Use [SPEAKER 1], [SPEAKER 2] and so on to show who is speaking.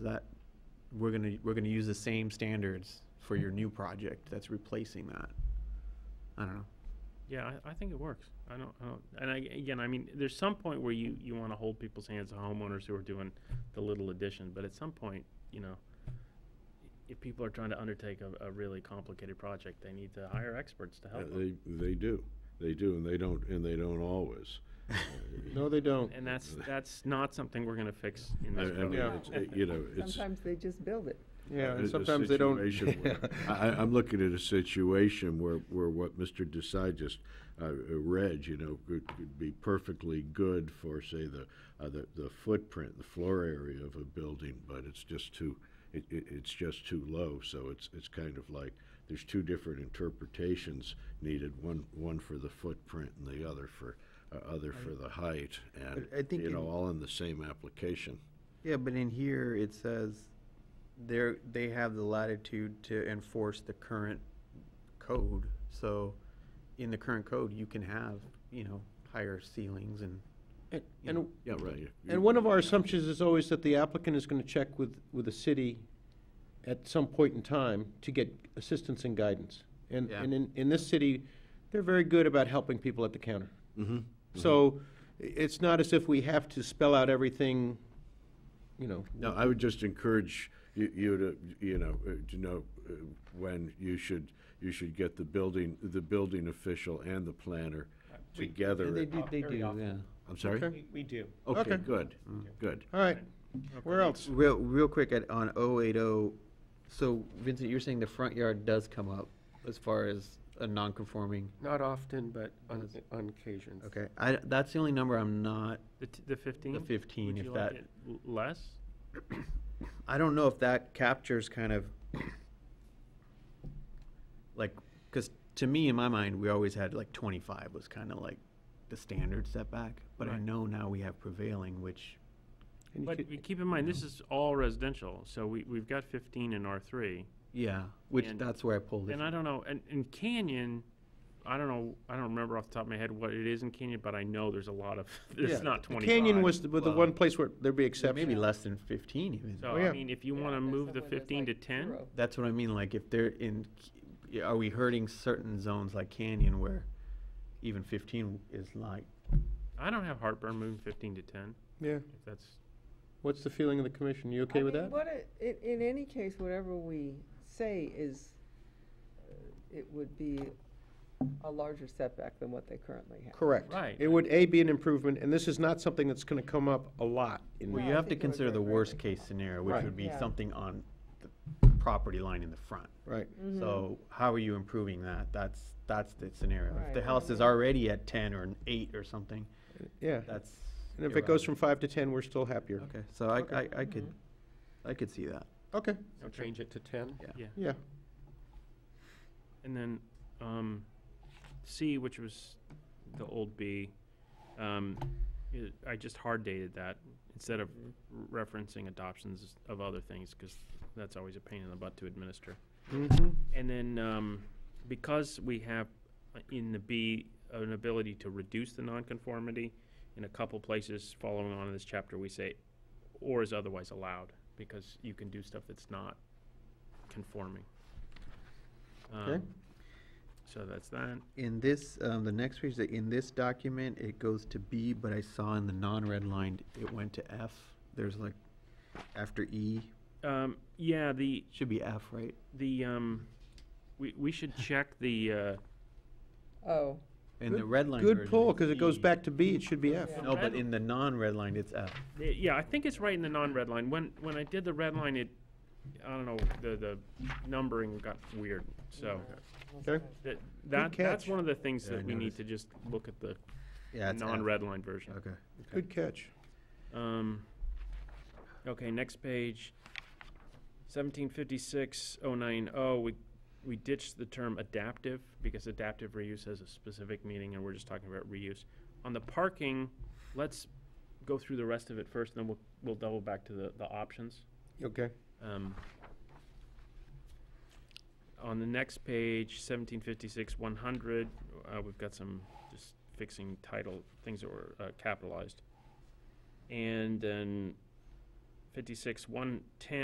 [SPEAKER 1] That, we're gonna, we're gonna use the same standards for your new project that's replacing that. I don't know.
[SPEAKER 2] Yeah, I, I think it works. I don't, I don't, and I, again, I mean, there's some point where you, you wanna hold people's hands, the homeowners who are doing the little addition, but at some point, you know, if people are trying to undertake a, a really complicated project, they need to hire experts to
[SPEAKER 3] Uh,
[SPEAKER 2] help them.
[SPEAKER 3] They, they do, they do, and they don't, and they don't always.
[SPEAKER 4] No, they don't.
[SPEAKER 2] And that's, that's not something we're gonna fix in
[SPEAKER 3] I, I
[SPEAKER 2] this
[SPEAKER 3] mean,
[SPEAKER 4] Yeah.
[SPEAKER 2] program.
[SPEAKER 3] it's, it- you know, it's.
[SPEAKER 5] Sometimes they just build it.
[SPEAKER 4] Yeah,
[SPEAKER 3] Uh, a-
[SPEAKER 4] and
[SPEAKER 3] a
[SPEAKER 4] sometimes they don't.
[SPEAKER 3] situation where- I, I- I'm looking at a situation where, where what Mr. Desai just uh, uh, read, you know, could, could be perfectly good for, say, the, uh, the, the footprint, the floor area of a building, but it's just too, it, it, it's just too low, so it's, it's kind of like, there's two different interpretations needed, one, one for the footprint and the other for, uh, other for the height, and,
[SPEAKER 6] I- I think
[SPEAKER 3] you know,
[SPEAKER 6] in-
[SPEAKER 3] all in the same application.
[SPEAKER 6] Yeah, but in here, it says they're, they have the latitude to enforce the current code. So in the current code, you can have, you know, higher ceilings and,
[SPEAKER 4] And-
[SPEAKER 6] you know,
[SPEAKER 4] And,
[SPEAKER 3] Yeah, right.
[SPEAKER 4] and one of our assumptions is always that the applicant is gonna check with, with the city at some point in time to get assistance and guidance. And,
[SPEAKER 6] Yeah.
[SPEAKER 4] and in, in this city, they're very good about helping people at the counter.
[SPEAKER 3] Mhm.
[SPEAKER 4] So i- it's not as if we have to spell out everything, you know.
[SPEAKER 3] No, I would just encourage you, you to, you know, uh, to know uh, when you should, you should get the building, the building official and the planner together.
[SPEAKER 4] They
[SPEAKER 3] at-
[SPEAKER 4] do, they do,
[SPEAKER 1] Yeah.
[SPEAKER 3] I'm sorry?
[SPEAKER 4] Okay.
[SPEAKER 7] We do.
[SPEAKER 3] Okay,
[SPEAKER 4] Okay.
[SPEAKER 3] good, good.
[SPEAKER 4] All right, where else?
[SPEAKER 6] real, real quick at, on oh eight oh, so Vincent, you're saying the front yard does come up as far as a non-conforming?
[SPEAKER 4] Not often, but
[SPEAKER 6] on-
[SPEAKER 4] on occasion.
[SPEAKER 6] Okay, I, that's the only number I'm not,
[SPEAKER 2] The, t- the fifteen?
[SPEAKER 6] 15,
[SPEAKER 2] Would
[SPEAKER 6] if
[SPEAKER 2] you like
[SPEAKER 6] that-
[SPEAKER 2] it l- Less?
[SPEAKER 6] I don't know if that captures kind of like because to me in my mind we always had like 25 was kind of like the standard setback but i
[SPEAKER 2] Right.
[SPEAKER 6] know now we have prevailing which
[SPEAKER 2] But we keep in mind, this is all residential, so we, we've got fifteen in R three.
[SPEAKER 6] yeah which
[SPEAKER 2] And-
[SPEAKER 6] that's where i pulled it
[SPEAKER 2] And I don't know, and, and Canyon, I don't know, I don't remember off the top of my head what it is in Canyon, but I know there's a lot of,
[SPEAKER 4] Yeah,
[SPEAKER 2] there's not
[SPEAKER 4] the
[SPEAKER 2] twenty-five.
[SPEAKER 4] Canyon was the, was the
[SPEAKER 6] Well-
[SPEAKER 4] one place where there'd be
[SPEAKER 6] from.
[SPEAKER 4] exceptions.
[SPEAKER 6] maybe less than 15 even
[SPEAKER 2] So,
[SPEAKER 4] Oh,
[SPEAKER 2] I
[SPEAKER 4] yeah.
[SPEAKER 2] mean, if you
[SPEAKER 5] Yeah,
[SPEAKER 2] wanna
[SPEAKER 5] there's
[SPEAKER 2] move the
[SPEAKER 5] somewhere there's
[SPEAKER 2] fifteen to
[SPEAKER 5] like
[SPEAKER 2] ten,
[SPEAKER 5] zero.
[SPEAKER 6] that's what i mean like if they're in yeah, are we hurting certain zones like canyon where even 15 is like
[SPEAKER 2] I don't have heartburn moving fifteen to ten,
[SPEAKER 4] Yeah,
[SPEAKER 2] if that's,
[SPEAKER 4] what's the feeling of the commission? You okay
[SPEAKER 5] I
[SPEAKER 4] with
[SPEAKER 5] mean,
[SPEAKER 4] that?
[SPEAKER 5] What, it- in, in any case, whatever we say is, uh, it would be a larger setback than what they currently have.
[SPEAKER 4] Correct.
[SPEAKER 2] Right.
[SPEAKER 4] It would, A, be an improvement, and this is not something that's gonna come up a lot in.
[SPEAKER 6] well
[SPEAKER 5] No,
[SPEAKER 6] you
[SPEAKER 5] I
[SPEAKER 6] have to
[SPEAKER 5] think it would
[SPEAKER 6] consider
[SPEAKER 5] very
[SPEAKER 6] the
[SPEAKER 5] rarely
[SPEAKER 6] worst
[SPEAKER 5] come
[SPEAKER 6] case scenario which
[SPEAKER 4] Right.
[SPEAKER 6] would be
[SPEAKER 5] Yeah.
[SPEAKER 6] something on the property line in the front
[SPEAKER 4] Right.
[SPEAKER 5] Mm-hmm.
[SPEAKER 6] So how are you improving that? That's, that's the scenario. If the
[SPEAKER 5] Right.
[SPEAKER 6] house is already at ten or an eight or something,
[SPEAKER 4] Yeah,
[SPEAKER 6] that's.
[SPEAKER 4] and if it goes from
[SPEAKER 6] irrelevant.
[SPEAKER 4] five to ten, we're still happier.
[SPEAKER 6] Okay, so I, I, I could,
[SPEAKER 4] Mm-hmm.
[SPEAKER 6] I could see that.
[SPEAKER 4] Okay,
[SPEAKER 2] change
[SPEAKER 7] it to ten?
[SPEAKER 2] yeah.
[SPEAKER 4] yeah.
[SPEAKER 2] And then, um, C, which was the old B, um, it- I just hard dated that instead of r- referencing adoptions of other things, because that's always a pain in the butt to administer.
[SPEAKER 4] Mhm.
[SPEAKER 2] And then, um, because we have uh, in the B, an ability to reduce the nonconformity, in a couple places following on in this chapter, we say, or is otherwise allowed, because you can do stuff that's not conforming.
[SPEAKER 4] Okay.
[SPEAKER 2] Um, So that's that.
[SPEAKER 6] In this, um, the next page, the- in this document, it goes to B, but I saw in the non-redlined, it went to F. There's like, after E,
[SPEAKER 2] Um, yeah, the,
[SPEAKER 6] should be F, right?
[SPEAKER 2] the, um, we, we should check the, uh,
[SPEAKER 5] Oh,
[SPEAKER 6] In the
[SPEAKER 4] Good-
[SPEAKER 6] redlined version.
[SPEAKER 4] Good pull,
[SPEAKER 6] it's
[SPEAKER 4] because it goes
[SPEAKER 6] E.
[SPEAKER 4] back to B, it should be F.
[SPEAKER 2] Yeah.
[SPEAKER 6] No, but in the non-redlined, it's F.
[SPEAKER 2] Uh, Yeah, I think it's right in the non-red line. When, when I did the red line, it, I don't know, the, the numbering got weird, so.
[SPEAKER 4] Okay.
[SPEAKER 2] That, that, that's
[SPEAKER 4] catch.
[SPEAKER 2] one of the things
[SPEAKER 6] Yeah, I
[SPEAKER 2] that we need
[SPEAKER 6] noticed.
[SPEAKER 2] to just look at the
[SPEAKER 6] Yeah, it's F.
[SPEAKER 2] non-red line version.
[SPEAKER 6] Okay.
[SPEAKER 4] Good catch.
[SPEAKER 2] Um, okay, next page, seventeen fifty-six oh nine oh, we, we ditched the term adaptive, because adaptive reuse has a specific meaning, and we're just talking about reuse. On the parking, let's go through the rest of it first, and then we'll, we'll double back to the, the options.
[SPEAKER 4] Okay.
[SPEAKER 2] Um, on the next page, seventeen fifty-six one hundred, uh, we've got some just fixing title, things that were, uh, capitalized. And then fifty-six, one ten.